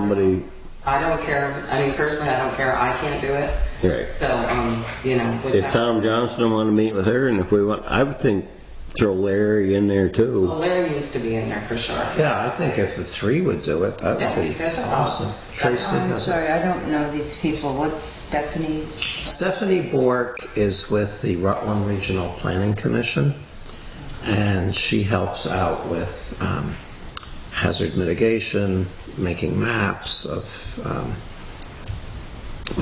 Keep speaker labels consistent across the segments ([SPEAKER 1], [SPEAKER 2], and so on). [SPEAKER 1] somebody,
[SPEAKER 2] I don't care, I mean, personally, I don't care, I can't do it.
[SPEAKER 1] Right.
[SPEAKER 2] So, um, you know, which
[SPEAKER 1] if
[SPEAKER 2] I,
[SPEAKER 1] Tom Johnston wanted to meet with her, and if we want, I would think throw Larry in there
[SPEAKER 2] well,
[SPEAKER 1] too.
[SPEAKER 2] Larry needs to be in there for sure.
[SPEAKER 3] Yeah, I think if the three would do it, that
[SPEAKER 2] Yeah,
[SPEAKER 3] would be
[SPEAKER 2] that's awesome.
[SPEAKER 3] awesome. Tracy
[SPEAKER 4] I'm
[SPEAKER 3] does it.
[SPEAKER 4] sorry, I don't know these people. What's Stephanie's?
[SPEAKER 3] Stephanie Bork is with the Rutland Regional Planning Commission, and she helps out with um, hazard mitigation, making maps of um,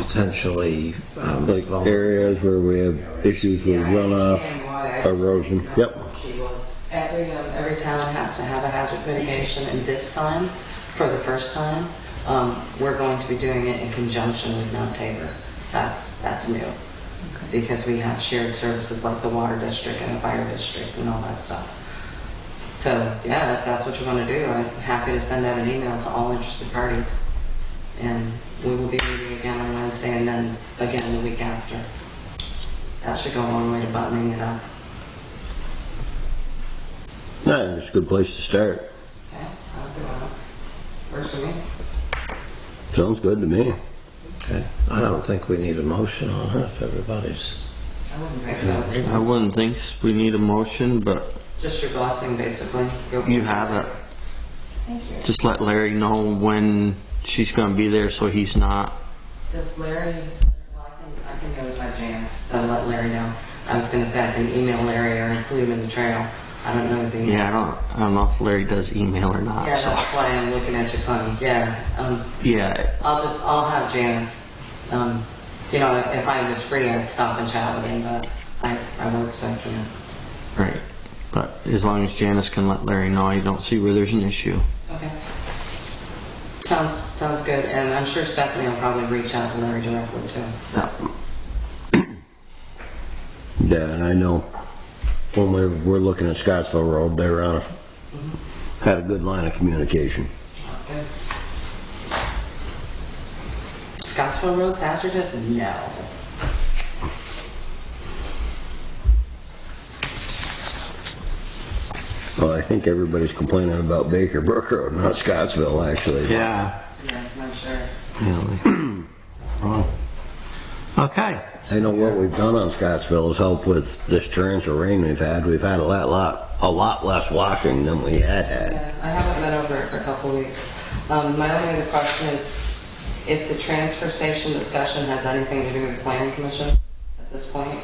[SPEAKER 3] potentially um,
[SPEAKER 1] Like
[SPEAKER 3] vulnerable.
[SPEAKER 1] areas where we have issues with
[SPEAKER 2] Yeah, I
[SPEAKER 1] runoff,
[SPEAKER 2] understand why. I just
[SPEAKER 1] erosion.
[SPEAKER 2] didn't know
[SPEAKER 1] Yep.
[SPEAKER 2] what she was. Every, um, every town has to have a hazard mitigation, and this time, for the first time, um, we're going to be doing it in conjunction with Mount Tabor. That's, that's new, because we have shared services like the water district and the fire district and all that stuff. So, yeah, if that's what you want to do, I'm happy to send out an email to all interested parties. And we will be meeting again on Wednesday, and then again the week after. That should go a long way to buttoning it up.
[SPEAKER 1] Nah, it's a good place to start.
[SPEAKER 2] Okay, how's it going? Works for me.
[SPEAKER 1] Sounds good to me.
[SPEAKER 3] Okay. I don't think we need a motion on it if everybody's.
[SPEAKER 2] I wouldn't think so.
[SPEAKER 5] I wouldn't think we need a motion, but
[SPEAKER 2] Just your blessing, basically. Go for
[SPEAKER 5] you
[SPEAKER 2] it.
[SPEAKER 5] have it.
[SPEAKER 4] Thank you.
[SPEAKER 5] Just let Larry know when she's gonna be there so he's not.
[SPEAKER 2] Does Larry, well, I can, I can go with my Janice, and let Larry know. I was gonna say I can email Larry or include him in the trail. I don't know his email.
[SPEAKER 5] Yeah, I don't, I don't know if Larry does email or
[SPEAKER 2] Yeah,
[SPEAKER 5] not, so.
[SPEAKER 2] that's why I'm looking at you funny, yeah. Um,
[SPEAKER 5] Yeah,
[SPEAKER 2] I'll just, I'll have Janice, um, you know, if I was free, I'd stop and chat with him, but I, I work, so I can't.
[SPEAKER 5] right. But as long as Janice can let Larry know, I don't see where there's an issue.
[SPEAKER 2] Okay. Sounds, sounds good, and I'm sure Stephanie will probably reach out to Larry directly too.
[SPEAKER 5] Yeah.
[SPEAKER 1] Yeah, and I know when we we're looking at Scottsville Road, they were on a, had a good line of communication.
[SPEAKER 2] Sounds good. Scottsville Road's hazardous? No.
[SPEAKER 1] Well, I think everybody's complaining about Baker Brook Road, not Scottsville, actually.
[SPEAKER 3] Yeah.
[SPEAKER 2] Yeah, I'm sure.
[SPEAKER 3] Okay.
[SPEAKER 1] I know what we've done on Scottsville is help with this torrential rain we've had. We've had a lot, lot, a lot less washing than we had had.
[SPEAKER 2] Yeah, I haven't been over it for a couple weeks. Um, my only other question is, if the transfer station discussion has anything to do with the planning commission at this point?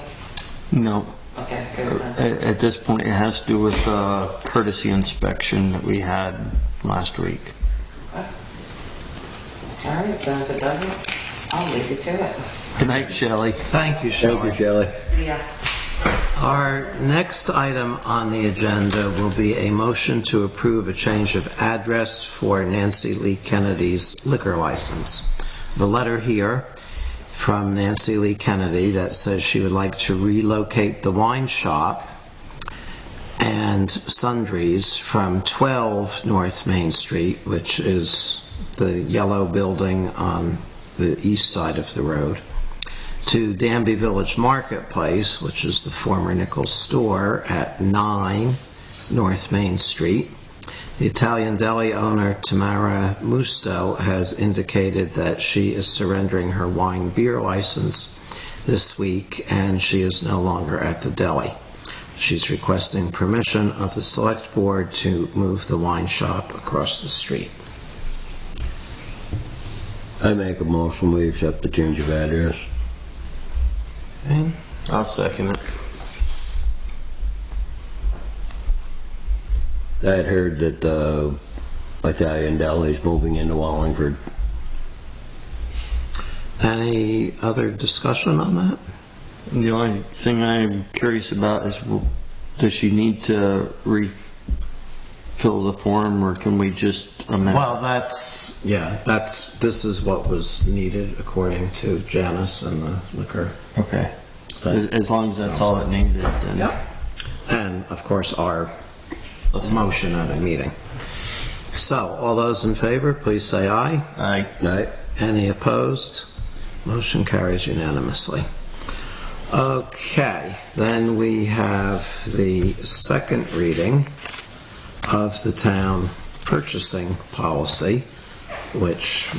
[SPEAKER 5] No,
[SPEAKER 2] Okay, good.
[SPEAKER 5] at,
[SPEAKER 2] then.
[SPEAKER 5] at this point, it has to do with uh courtesy inspection that we had last week.
[SPEAKER 2] All right, then if it doesn't, I'll leave you to it.
[SPEAKER 5] Good night, Shelley.
[SPEAKER 3] Thank you,
[SPEAKER 1] Thank you,
[SPEAKER 3] Shelley.
[SPEAKER 1] Shelley.
[SPEAKER 2] Yeah.
[SPEAKER 3] Our next item on the agenda will be a motion to approve a change of address for Nancy Lee Kennedy's liquor license. The letter here from Nancy Lee Kennedy that says she would like to relocate the wine shop and sundries from 12 North Main Street, which is the yellow building on the east side of the road, to Danby Village Marketplace, which is the former Nichols store at 9 North Main Street. The Italian deli owner Tamara Musto has indicated that she is surrendering her wine beer license this week and she is no longer at the deli. She's requesting permission of the select board to move the wine shop across the street.
[SPEAKER 1] I make a motion, we accept the change of address.
[SPEAKER 5] I'll second it.
[SPEAKER 1] I had heard that the Italian deli's moving into Wallingford.
[SPEAKER 3] Any other discussion on that?
[SPEAKER 5] The only thing I'm curious about is, well, does she need to refill the form, or can we just amend?
[SPEAKER 3] Well, that's, yeah, that's, this is what was needed according to Janice and the liquor.
[SPEAKER 5] Okay. As, as long as that's all it needed, then.
[SPEAKER 3] And of course, our motion at a meeting. So, all those in favor, please say aye.
[SPEAKER 5] I,
[SPEAKER 1] Right?
[SPEAKER 3] Any opposed? Motion carries unanimously. Okay, then we have the second reading of the town purchasing policy, which